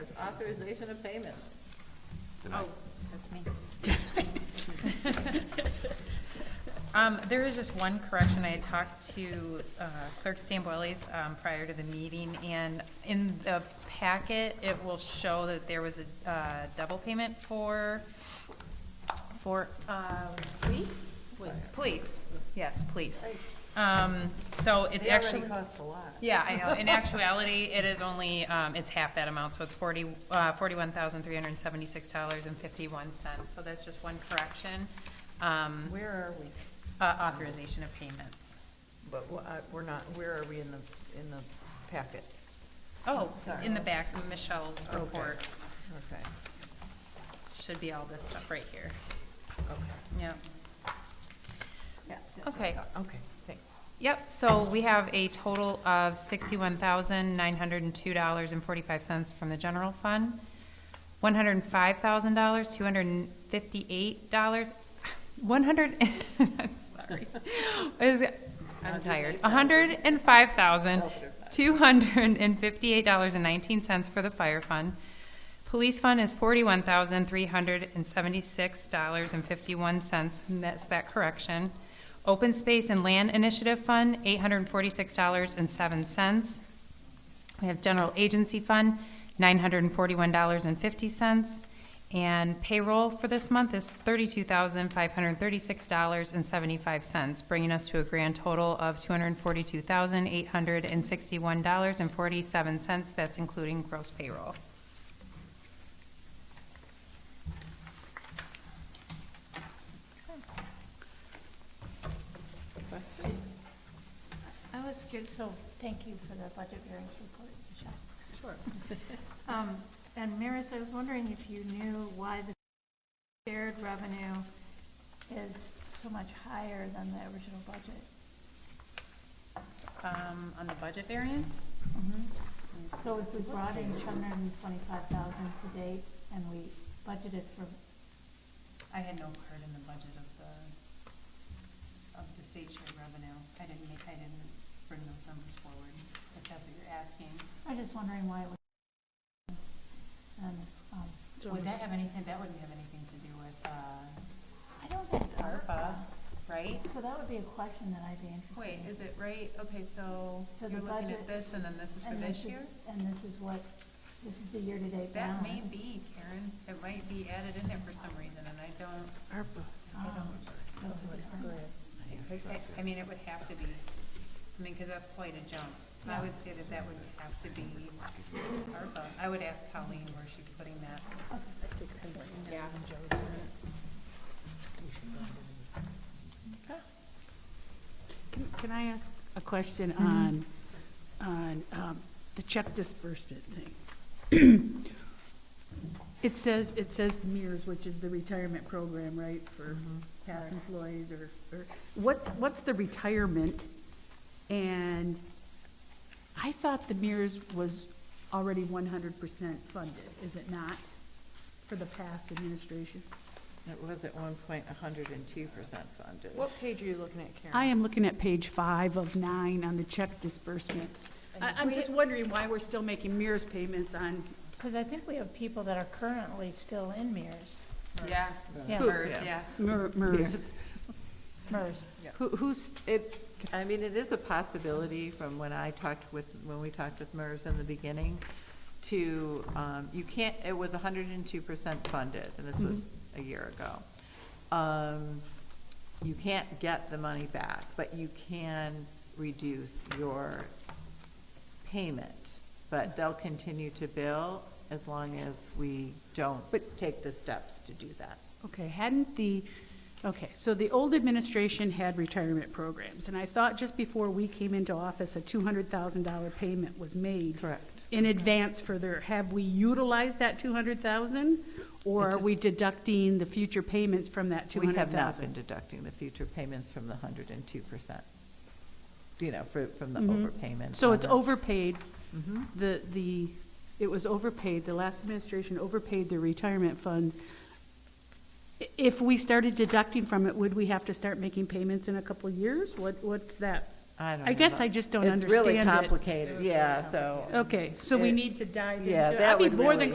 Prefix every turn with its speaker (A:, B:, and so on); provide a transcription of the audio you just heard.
A: authorization of payments.
B: Deny.
A: Oh, that's me.
C: Um, there is just one correction. I had talked to uh, Clerk Stamboylis, um, prior to the meeting, and in the packet, it will show that there was a, uh, double payment for, for, um, police? Police, yes, police. Um, so it's
A: They already
C: actually.
A: cost a lot.
C: Yeah, I know. In actuality, it is only, um, it's half that amount, so it's forty, uh, forty-one thousand, three hundred and seventy-six dollars and fifty-one cents. So that's just one correction. Um,
A: Where are we?
C: uh, authorization of payments.
A: But wh- uh, we're not, where are we in the, in the packet?
C: Oh,
A: Sorry.
C: in the back, Michelle's
A: Okay.
C: report
A: Okay,
C: should be all this stuff right here.
A: okay.
C: Yep. Okay.
A: Okay, thanks.
C: Yep, so we have a total of sixty-one thousand, nine hundred and two dollars and forty-five cents from the general fund, one hundred and five thousand dollars, two hundred and fifty-eight dollars, one hundred, I'm sorry. Is- I'm tired. A hundred and five thousand, two hundred and fifty-eight dollars and nineteen cents for the fire fund. Police fund is forty-one thousand, three hundred and seventy-six dollars and fifty-one cents, and that's that correction. Open Space and Land Initiative Fund, eight hundred and forty-six dollars and seven cents. We have General Agency Fund, nine hundred and forty-one dollars and fifty cents. And payroll for this month is thirty-two thousand, five hundred and thirty-six dollars and seventy-five cents, bringing us to a grand total of two hundred and forty-two thousand, eight hundred and sixty-one dollars and forty-seven cents. That's including gross payroll.
A: Questions?
D: I was curious, so thank you for the budget hearings report, Michelle.
A: Sure.
D: Um, And Maris, I was wondering if you knew why the shared revenue is so much higher than the original budget.
C: Um, on the budget variance? Mm-hmm.
D: So if we brought in seven hundred and twenty-five thousand to date and we budgeted for,
C: I had no part in the budget of the, of the state share revenue. I didn't make, I didn't bring those numbers forward, if that's what you're asking.
D: I'm just wondering why it was. And, um,
C: Would that have anything, that wouldn't have anything to do with, uh,
D: I don't think it's
C: ARPA, right?
D: So that would be a question that I'd be interested in.
C: Wait, is it right? Okay, so
D: So
C: you're
D: the
C: looking at
D: budget-
C: this and then this is for
D: And
C: this year?
D: And this is what, this is the year-to-date
C: That
D: balance.
C: may be, Karen. It might be added in there for some reason and I don't,
A: ARPA.
D: Um,
C: I don't.
D: So it's-
A: Go ahead.
C: I- I mean, it would have to be, I mean, because that's quite a jump. I would say that that would have to be ARPA. I would ask Colleen where she's putting that. Yeah.
E: Can- Can I ask a question on, on um, the check disbursement thing? It says, it says MERS, which is the retirement program, right, for
A: Mm-hmm.
E: past employees or, or, what, what's the retirement? And I thought the MERS was already one hundred percent funded, is it not, for the past administration?
F: It was at one point hundred and two percent funded.
A: What page are you looking at, Karen?
E: I am looking at page five of nine on the check disbursement. I, I'm just wondering why we're still making MERS payments on,
D: Because I think we have people that are currently still in mirrors,
C: Yeah.
D: Yeah.
C: MERS, yeah.
E: MER- MERS.
D: MERS.
F: Who, who's, it, I mean, it is a possibility from when I talked with, when we talked with MERS in the beginning, to, um, you can't, it was hundred and two percent funded, and this was a year ago. Um, you can't get the money back, but you can reduce your payment. But they'll continue to bill as long as we don't
E: But-
F: take the steps to do that.
E: Okay, hadn't the, okay, so the old administration had retirement programs, and I thought just before we came into office, a two hundred thousand dollar payment was made.
F: Correct.
E: In advance for their, have we utilized that two hundred thousand? Or
F: It
E: are we
F: just-
E: deducting the future payments from that two
F: We
E: hundred
F: have
E: thousand?
F: not been deducting the future payments from the hundred and two percent, you know, for, from the overpayment.
E: Mm-hmm. So
F: on
E: it's
F: the- Mm-hmm.
E: overpaid, the, the, it was overpaid, the last administration overpaid their retirement funds. I- If we started deducting from it, would we have to start making payments in a couple of years? What, what's that?
F: I don't
E: I guess
F: know.
E: I just don't
F: It's really
E: understand it.
F: complicated, yeah, so.
E: Okay, so we
F: It-
E: need to dive into it.
F: Yeah, that would
E: I'd be more
F: really-
E: than